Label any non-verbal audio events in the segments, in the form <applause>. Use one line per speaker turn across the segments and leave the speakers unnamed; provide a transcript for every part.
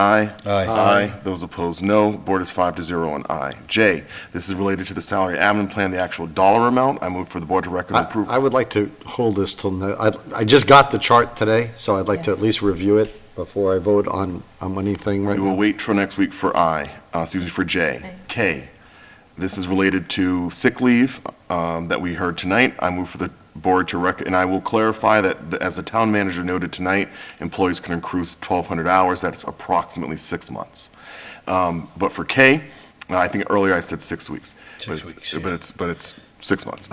Aye.
Aye.
Aye. Those opposed, no. Board is five to zero on aye. J, this is related to the salary admin plan, the actual dollar amount. I move for the board to recommend
I I
approval.
would like to hold this till, no- I, I just got the chart today, so I'd like to at least review it before I vote on, on anything right
We will
now.
wait for next week for I, uh, excuse me, for J.
Aye.
K, this is related to sick leave um, that we heard tonight. I move for the board to rec, and I will clarify that, the- as the town manager noted tonight, employees can accrue 1,200 hours, that's approximately six months. Um, But for K, uh, I think earlier I said six weeks. but
Six
it's-
weeks, yeah.
But it's, but it's six months.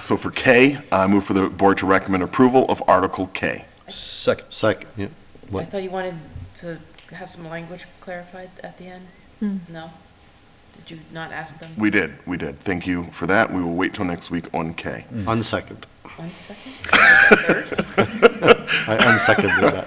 <laughs> So for K, I move for the board to recommend approval of Article K.
Second.
Second, yeah.
I
What?
thought you wanted to have some language clarified at the end? No? Did you not ask them?
We did, we did. Thank you for that. We will wait till next week on K.
Mm-hmm. unsecond.
One second?
I unseconded that.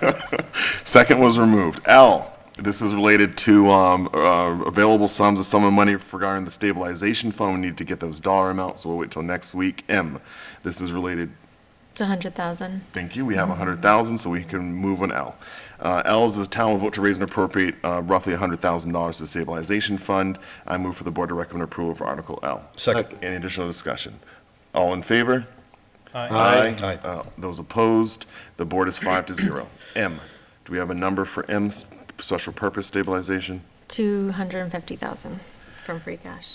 Second was removed. L, this is related to um, uh, available sums of sum of money regarding the stabilization fund. We need to get those dollar amounts, so we'll wait till next week. M, this is related,
It's a hundred thousand.
thank you, we have 100,000, so we can move on L. Uh, L is the town will vote to raise and appropriate uh, roughly $100,000 to stabilization fund. I move for the board to recommend approval for Article L.
Second.
Any additional discussion? All in favor?
Aye.
Uh, Those opposed, the board is five to zero. M, do we have a number for M, s- special purpose stabilization?
Two hundred and fifty thousand from free cash.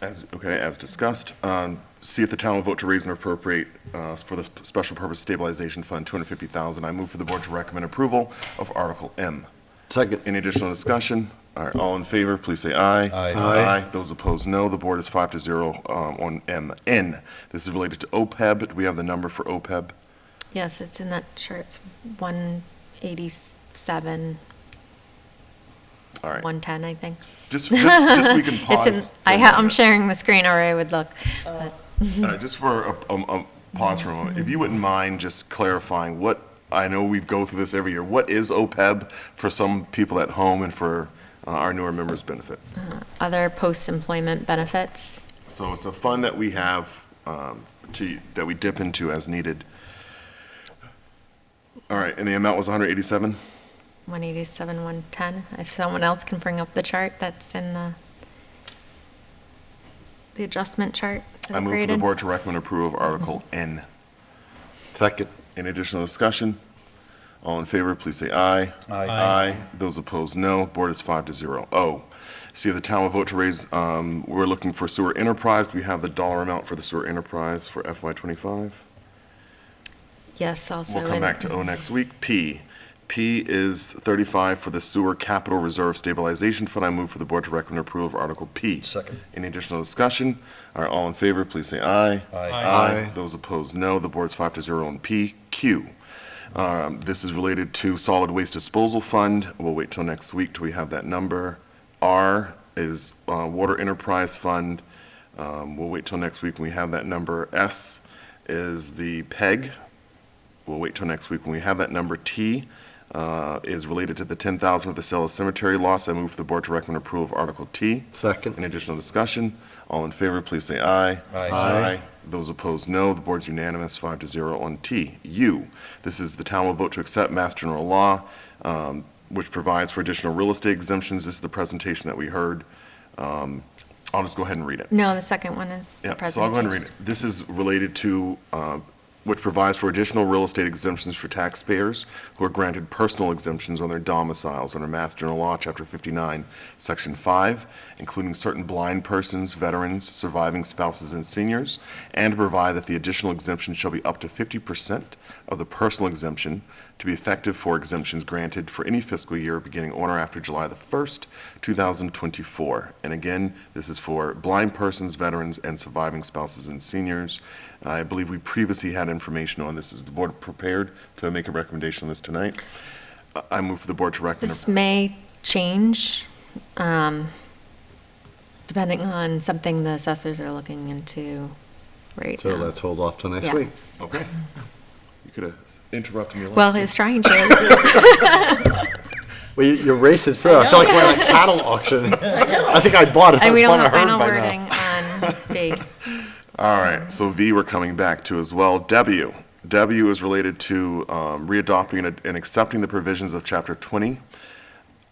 As, okay, as discussed, um, see if the town will vote to raise and appropriate uh, for the special purpose stabilization fund, 250,000. I move for the board to recommend approval of Article M.
Second,
Any additional discussion? All right, all in favor, please say aye.
Aye.
Aye.
Those opposed, no. The board is five to zero um, on M. N, this is related to OPEB. Do we have the number for E OPEB?
Yes, it's in that chart. It's one eighty-seven,
All right.
one ten, I think.
Just, just, just we can pause.
<laughs> It's in,
for
I
a
ha, I'm
moment.
sharing the screen or I would look. but-
Uh, Just for a, a, a pause for a moment, if you wouldn't mind just clarifying what, I know we go through this every year, what is OPEB for some people at home and for uh, our newer members' benefit?
Other post-employment benefits.
So it's a fund that we have, um, to, that we dip into as needed. All right, and the amount was 187?
187, 110. If someone else can bring up the chart that's in the, the adjustment chart. that
I
I've
move for the
created.
board to recommend approval of Article N.
second,
Any additional discussion? All in favor, please say aye.
Aye.
Aye. Those opposed, no. Board is five to zero. O, see if the town will vote to raise, um, we're looking for sewer enterprise. Do we have the dollar amount for the sewer enterprise for FY twenty-five?
Yes, also.
We'll come
in-
back to O next week. P, P is thirty-five for the sewer capital reserve stabilization fund. I move for the board to recommend approval of Article P.
Second.
Any additional discussion? Are all in favor, please say aye.
Aye.
Aye. Those opposed, no. The board's five to zero on P. Q. Um, This is related to solid waste disposal fund. We'll wait till next week till we have that number. R is uh, water enterprise fund. Um, We'll wait till next week when we have that number. S is the PEG. We'll wait till next week when we have that number. T uh, is related to the 10,000 with the sale of cemetery lots. I move for the board to recommend approval of Article T. Any
second,
additional discussion? All in favor, please say aye.
Aye.
Aye.
Those opposed, no. The board's unanimous, five to zero on T. U, this is the town will vote to accept Mass General Law, um, which provides for additional real estate exemptions. This is the presentation that we heard. Um, I'll just go ahead and read it.
No, the second one is the
Yeah, so I'll go ahead and
presentation.
read it. This is related to, uh, which provides for additional real estate exemptions for taxpayers who are granted personal exemptions on their domiciles under Mass General Law, Chapter 59, Section 5, including certain blind persons, veterans, surviving spouses, and seniors, and to provide that the additional exemption shall be up to 50% of the personal exemption to be effective for exemptions granted for any fiscal year beginning on or after July the 1st, 2024. And again, this is for blind persons, veterans, and surviving spouses and seniors. I believe we previously had information on this. Is the board prepared to make a recommendation on this tonight? I- I move for the board to recommend.
This may change, um, depending on something the assessors are looking into right
so
now.
let's hold off till next week.
Yes.
Okay. You could have s- interrupted me last.
Well,
time.
he's
<laughs>
trying to.
Well, you- you're racing through, I feel like we're at a cattle
<laughs>
auction. I think I bought it,
And we
I
don't
bought a
have
herd
final
by now.
wording on
<laughs>
B.
All right, so V we're coming back to as well. W, W is related to um, readopting and- and accepting the provisions of Chapter 20